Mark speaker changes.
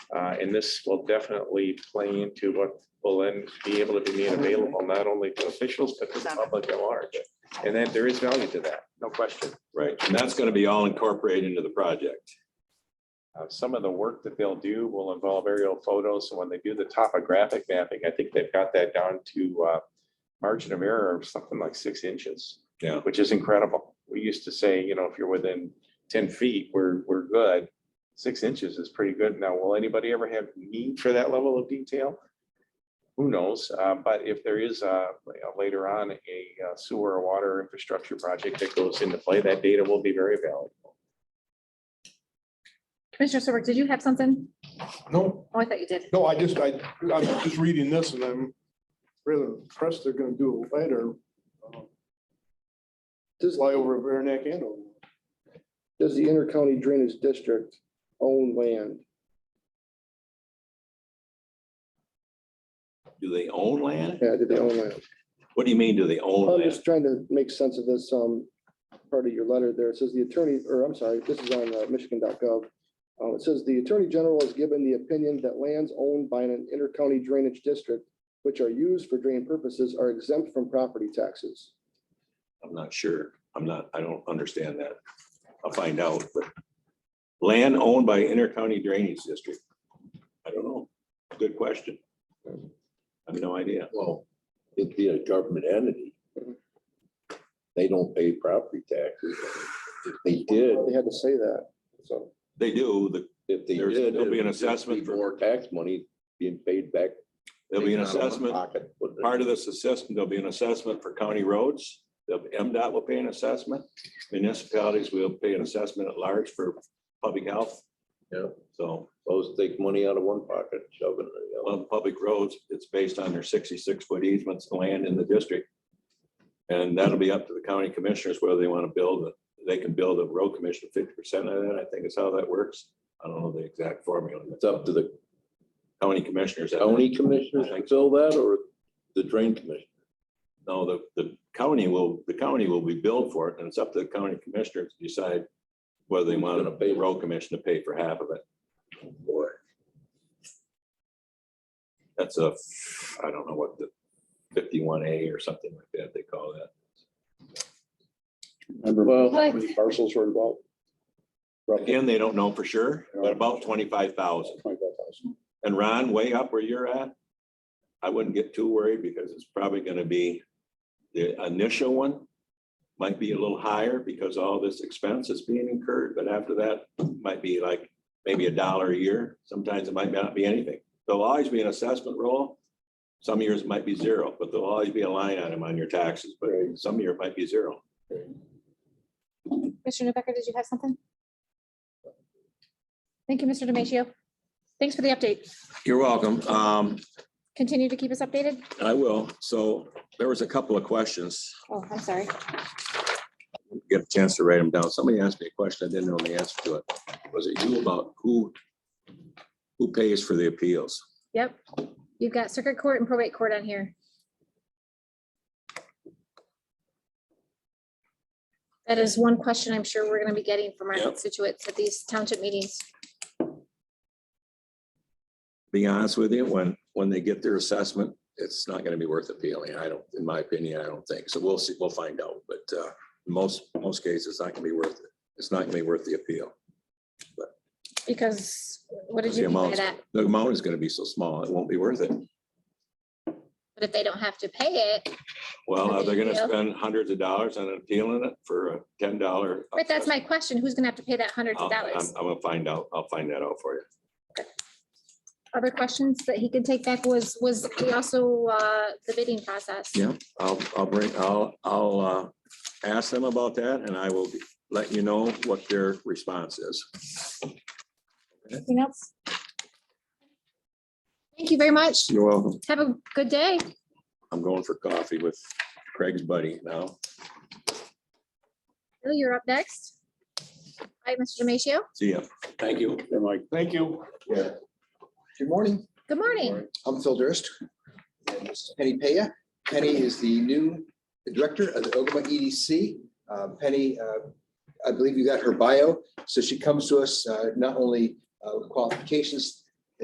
Speaker 1: Uh, And this will definitely play into what will then be able to be made available, not only to officials, but to the public at large. And then there is value to that, no question.
Speaker 2: Right, and that's gonna be all incorporated into the project.
Speaker 1: Uh, Some of the work that they'll do will involve aerial photos. So when they do the topographic mapping, I think they've got that down to uh, margin of error of something like six inches.
Speaker 2: Yeah.
Speaker 1: Which is incredible. We used to say, you know, if you're within ten feet, we're, we're good. Six inches is pretty good. Now, will anybody ever have need for that level of detail? Who knows? Uh, But if there is uh, later on a uh, sewer or water infrastructure project that goes into play, that data will be very valuable.
Speaker 3: Commissioner Serbrook, did you have something?
Speaker 4: No,
Speaker 3: Oh, I thought you did.
Speaker 4: no, I just, I, I'm just reading this and I'm really impressed they're gonna do a letter. um, This lie over at Veranac and Andover.
Speaker 5: Does the intercounty drainage district own land?
Speaker 2: Do they own land?
Speaker 5: Yeah, do they own land?
Speaker 2: What do you mean, do they own
Speaker 5: I'm
Speaker 2: land?
Speaker 5: just trying to make sense of this, um, part of your letter there. It says the attorney, or I'm sorry, this is on uh, michigan.gov. Uh, it says the attorney general has given the opinion that lands owned by an intercounty drainage district, which are used for drain purposes, are exempt from property taxes.
Speaker 2: I'm not sure. I'm not, I don't understand that. I'll find out, but land owned by intercounty drainage district. I don't know. Good question. I have no idea.
Speaker 6: Well, it'd be a government entity. They don't pay property taxes. If they did,
Speaker 5: They had to say that, so.
Speaker 2: They do, the,
Speaker 6: if they
Speaker 2: There's-
Speaker 6: did.
Speaker 2: there'll be an
Speaker 6: it would just
Speaker 2: assessment
Speaker 6: be
Speaker 2: for-
Speaker 6: More tax money being paid back.
Speaker 2: there'll be an
Speaker 6: Not out of my
Speaker 2: assessment,
Speaker 6: pocket, but-
Speaker 2: part of this assessment, there'll be an assessment for county roads. The MDOT will pay an assessment. Municipalities will pay an assessment at large for public health.
Speaker 6: Yeah.
Speaker 2: So,
Speaker 6: Those take money out of one pocket, shove it in the other.
Speaker 2: well, public roads, it's based on their sixty-six foot easements of land in the district. And that'll be up to the county commissioners whether they want to build, it. they can build a road commission fifty percent of that, I think is how that works. I don't know the exact formula, but
Speaker 6: It's up to the
Speaker 2: county commissioners.
Speaker 6: county commissioners to fill that or the drain commission.
Speaker 2: No, the, the county will, the county will be billed for it, and it's up to the county commissioner to decide whether they
Speaker 6: Who's
Speaker 2: want
Speaker 6: gonna pay
Speaker 2: the
Speaker 6: it?
Speaker 2: road commission to pay for half of it.
Speaker 6: Boy,
Speaker 2: That's a, I don't know what the fifty-one A or something like that they call that.
Speaker 5: Remember how
Speaker 3: What?
Speaker 5: many parcels were involved? Roughly
Speaker 2: Again, they don't know for sure, but about twenty-five thousand.
Speaker 5: 25,000.
Speaker 2: And Ron, way up where you're at, I wouldn't get too worried because it's probably gonna be, the initial one might be a little higher because all this expense is being incurred, but after that, might be like maybe a dollar a year. Sometimes it might not be anything. There'll always be an assessment roll. Some years it might be zero, but there'll always be a line item on your taxes, but some year it might be zero.
Speaker 3: Commissioner Newbecker, did you have something? Thank you, Mr. Demacia. Thanks for the update.
Speaker 2: You're welcome. Um,
Speaker 3: Continue to keep us updated.
Speaker 2: I will. So there was a couple of questions.
Speaker 3: Oh, I'm sorry.
Speaker 2: get a chance to write them down. Somebody asked me a question. I didn't know the answer to it. Was it you about who, who pays for the appeals?
Speaker 3: Yep. You've got circuit court and probate court on here. That is one question I'm sure we're going to be getting from our
Speaker 2: Yep.
Speaker 3: constituents at these township meetings.
Speaker 2: Be honest with you, when, when they get their assessment, it's not gonna be worth appealing. I don't, in my opinion, I don't think. So we'll see, we'll find out. But, uh, in most, most cases, it's not gonna be worth it. It's not gonna be worth the appeal.
Speaker 3: Because what did
Speaker 2: The
Speaker 3: you mean by
Speaker 2: amount,
Speaker 3: that?
Speaker 2: the amount is gonna be so small, it won't be worth it.
Speaker 3: But if they don't have to pay it,
Speaker 2: Well, are they gonna
Speaker 3: Yeah.
Speaker 2: spend hundreds of dollars on appealing it for a ten dollar?
Speaker 3: right, that's my question. Who's going to have to pay that hundreds
Speaker 2: Uh,
Speaker 3: of
Speaker 2: I'm,
Speaker 3: dollars?
Speaker 2: I'm gonna find out. I'll find that out for you.
Speaker 3: other questions that he could take back was, was he also, uh, the bidding process.
Speaker 2: Yeah, I'll, I'll bring, I'll, I'll uh, ask them about that and I will let you know what their response is.
Speaker 3: Anything else? Thank you very much.
Speaker 2: You're welcome.
Speaker 3: Have a good day.
Speaker 2: I'm going for coffee with Craig's buddy now.
Speaker 3: Bill, you're up next. Hi, Mr. Demacia.
Speaker 2: See ya. Thank you.
Speaker 4: Thank you.
Speaker 7: Good morning,
Speaker 3: Good morning.
Speaker 7: I'm Phil Durst. And this is Penny Paya. Penny is the new director of the Ogama EDC. Uh, Penny, uh, I believe you got her bio. So she comes to us uh, not only uh, with qualifications